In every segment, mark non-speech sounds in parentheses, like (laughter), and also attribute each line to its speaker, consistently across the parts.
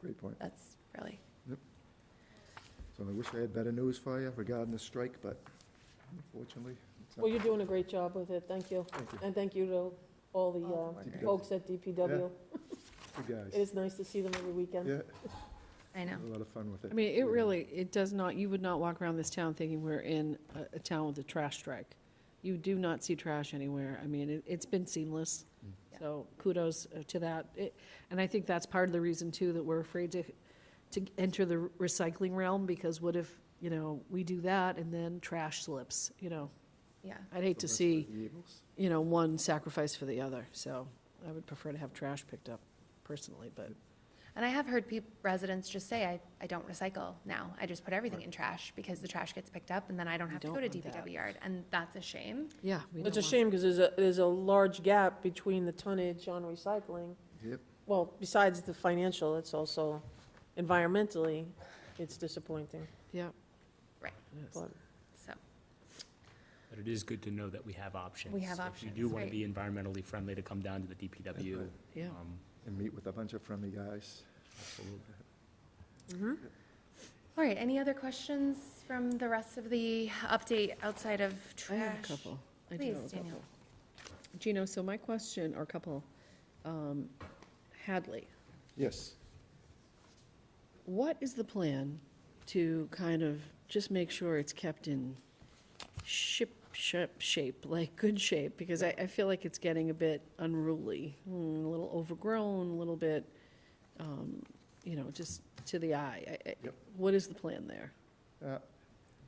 Speaker 1: Great point.
Speaker 2: That's really,
Speaker 1: So I wish I had better news for you regarding the strike, but unfortunately, it's
Speaker 3: Well,
Speaker 1: not.
Speaker 3: you're doing a great job with it, thank you.
Speaker 1: Thank you.
Speaker 3: And thank you to all
Speaker 2: All
Speaker 3: the
Speaker 2: the
Speaker 3: uh,
Speaker 1: workers.
Speaker 3: folks at DPW.
Speaker 1: You
Speaker 3: It
Speaker 1: guys.
Speaker 3: is nice to see them every weekend.
Speaker 1: Yeah,
Speaker 2: I know.
Speaker 1: had a lot of fun with it.
Speaker 4: I mean,
Speaker 1: Yeah.
Speaker 4: it really, it does not, you would not walk around this town thinking we're in a, a town with a trash strike. You do not see trash anywhere. I mean, it, it's been seamless.
Speaker 1: Mm.
Speaker 2: Yeah.
Speaker 4: So kudos uh, to that. It- And I think that's part of the reason too, that we're afraid to, to enter the recycling realm because what if, you know, we do that and then trash slips, you know?
Speaker 2: Yeah.
Speaker 4: I'd hate to
Speaker 1: So much for
Speaker 4: see,
Speaker 1: the Eagles.
Speaker 4: you know, one sacrifice for the other. So I would prefer to have trash picked up personally, but
Speaker 2: And I have heard peop residents just say, I, I don't recycle now. I just put everything in trash because the trash gets picked up and then I don't
Speaker 4: We
Speaker 2: have to go
Speaker 4: don't
Speaker 2: to
Speaker 4: want that.
Speaker 2: DPW yard. And that's a shame.
Speaker 4: yeah. we
Speaker 3: It's a
Speaker 4: don't want-
Speaker 3: shame because there's a, there's a large gap between the tonnage on recycling.
Speaker 1: Yep,
Speaker 3: Well, besides the financial, it's also environmentally, it's disappointing.
Speaker 4: Yeah.
Speaker 2: Right.
Speaker 4: Yes.
Speaker 3: But
Speaker 2: So,
Speaker 5: But it is good to know that we have options.
Speaker 2: We have
Speaker 5: If you
Speaker 2: options,
Speaker 5: do want
Speaker 2: right.
Speaker 5: to be environmentally friendly, to come down to the DPW.
Speaker 1: That's
Speaker 4: Yeah.
Speaker 5: um,
Speaker 1: and meet with a bunch of friendly guys.
Speaker 5: Absolutely.
Speaker 2: all right, any other questions from the rest of the update outside of trash?
Speaker 4: I have a couple. I do have
Speaker 2: Please,
Speaker 4: a couple.
Speaker 2: Danielle.
Speaker 4: Gino, so my question, or couple, um, Hadley,
Speaker 1: Yes.
Speaker 4: what is the plan to kind of just make sure it's kept in ship, ship, shape, like good shape? Because I, I feel like it's getting a bit unruly, mm, a little overgrown, a little bit, um, you know, just to the eye. I- I-
Speaker 1: Yep.
Speaker 4: What is the plan there?
Speaker 1: Uh,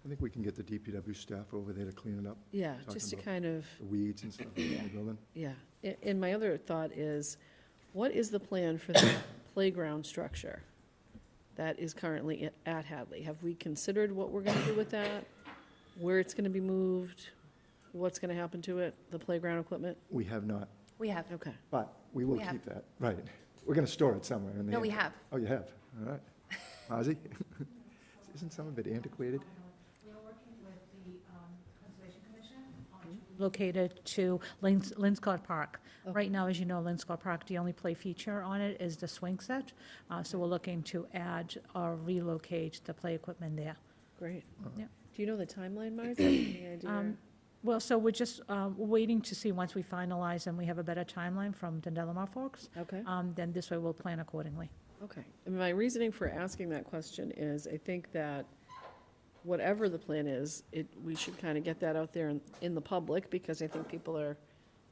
Speaker 1: I think we can get the DPW staff over there to clean it up,
Speaker 4: Yeah,
Speaker 1: Talking
Speaker 4: just to
Speaker 1: about-
Speaker 4: kind of.
Speaker 1: the weeds and stuff in the building.
Speaker 4: Yeah, A- and my other thought is, what is the plan for the (coughs) playground structure that is currently i- at Hadley? Have we considered what we're gonna do with that? Where it's gonna be moved? What's gonna happen to it, the playground equipment?
Speaker 1: We have not,
Speaker 2: We have,
Speaker 4: Okay,
Speaker 1: but we will
Speaker 2: We have.
Speaker 1: keep that, right. We're going to store it somewhere in the.
Speaker 2: no, we
Speaker 1: end.
Speaker 2: have.
Speaker 1: Oh, you have, all right. Ozzy? (laughs) Isn't some of it antiquated?
Speaker 6: located to Lins- Linscott Park. Right now, as you know, Linscott Park, the only play feature on it is the swing set. Uh, So we're looking to add or relocate the play equipment there.
Speaker 4: great.
Speaker 6: Yeah.
Speaker 4: Do you know the timeline, Martha? Any idea?
Speaker 6: Um, Well, so we're just uh, waiting to see, once we finalize and we have a better timeline from the Delamar folks,
Speaker 4: Okay.
Speaker 6: um, then this way we'll plan accordingly.
Speaker 4: Okay. And my reasoning for asking that question is, I think that whatever the plan is, it, we should kind of get that out there in, in the public, because I think people are,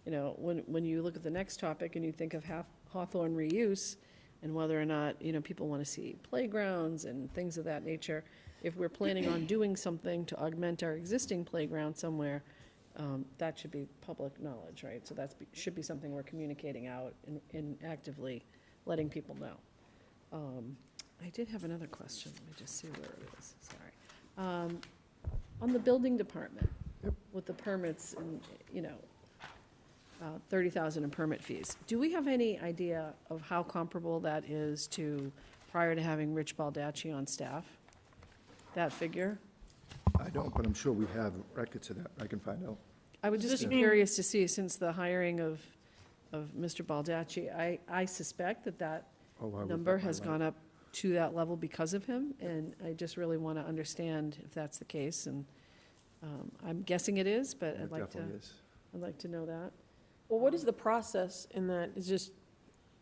Speaker 4: you know, when, when you look at the next topic and you think of Hath- Hawthorne reuse, and whether or not, you know, people want to see playgrounds and things of that nature, if we're planning on doing something to augment our existing playground somewhere, um, that should be public knowledge, right? So that's, be- should be something we're communicating out and, and actively letting people know. Um, I did have another question, let me just see where it is, sorry. Um, On the building department,
Speaker 1: Yep.
Speaker 4: with the permits and, you know, uh, 30,000 in permit fees, do we have any idea of how comparable that is to, prior to having Rich Baldacci on staff? That figure?
Speaker 1: I don't, but I'm sure we have records of that. I can find out.
Speaker 4: I would
Speaker 3: Does
Speaker 4: just
Speaker 3: this
Speaker 4: be
Speaker 3: mean-
Speaker 4: curious to see, since the hiring of, of Mr. Baldacci, I, I suspect that that
Speaker 1: Oh, I would
Speaker 4: number
Speaker 1: bet my
Speaker 4: has
Speaker 1: life.
Speaker 4: gone up to that level because of him, and I just really want to understand if that's the case, and um, I'm guessing it is, but
Speaker 1: Yeah,
Speaker 4: I'd
Speaker 1: It
Speaker 4: like to,
Speaker 1: definitely is.
Speaker 4: I'd like to know that.
Speaker 3: Well, what is the process in that? Is just,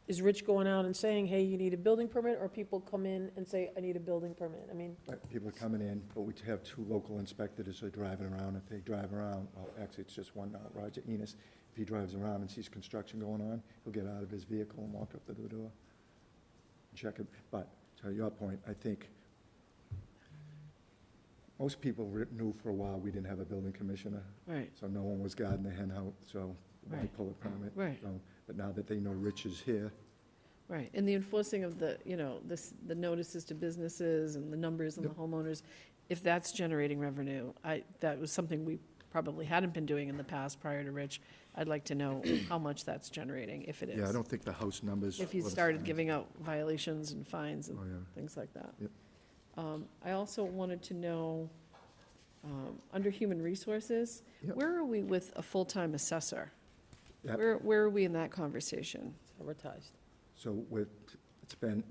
Speaker 3: is Rich going out and saying, hey, you need a building permit? Or people come in and say, I need a building permit? I mean,
Speaker 1: Right, People are coming in, but we have two local inspectors who are driving around. If they drive around, well, actually, it's just one now, Roger Enos. If he drives around and sees construction going on, he'll get out of his vehicle and walk up to the door, check it. But to your point, I think most people re- knew for a while we didn't have a building commissioner,
Speaker 4: Right,
Speaker 1: so no one was guarding the hen house, so why
Speaker 4: Right.
Speaker 1: pull a permit?
Speaker 4: right,
Speaker 1: So, But now that they know Rich is here,
Speaker 4: right. And the enforcing of the, you know, this, the notices to businesses and the numbers and the
Speaker 1: Yep.
Speaker 4: homeowners, if that's generating revenue, I, that was something we probably hadn't been doing in the past prior to Rich. I'd like to know how much that's generating, if it is.
Speaker 1: yeah, I don't think the house numbers.
Speaker 4: If he
Speaker 1: were the
Speaker 4: started
Speaker 1: same.
Speaker 4: giving out violations and fines and
Speaker 1: Oh, yeah.
Speaker 4: things like that.
Speaker 1: Yep.
Speaker 4: Um, I also wanted to know, um, under human resources,
Speaker 1: Yep.
Speaker 4: where are we with a full-time assessor?
Speaker 1: Yep.
Speaker 4: Where, where are we in that conversation?
Speaker 3: it's advertised.
Speaker 1: So with, it's been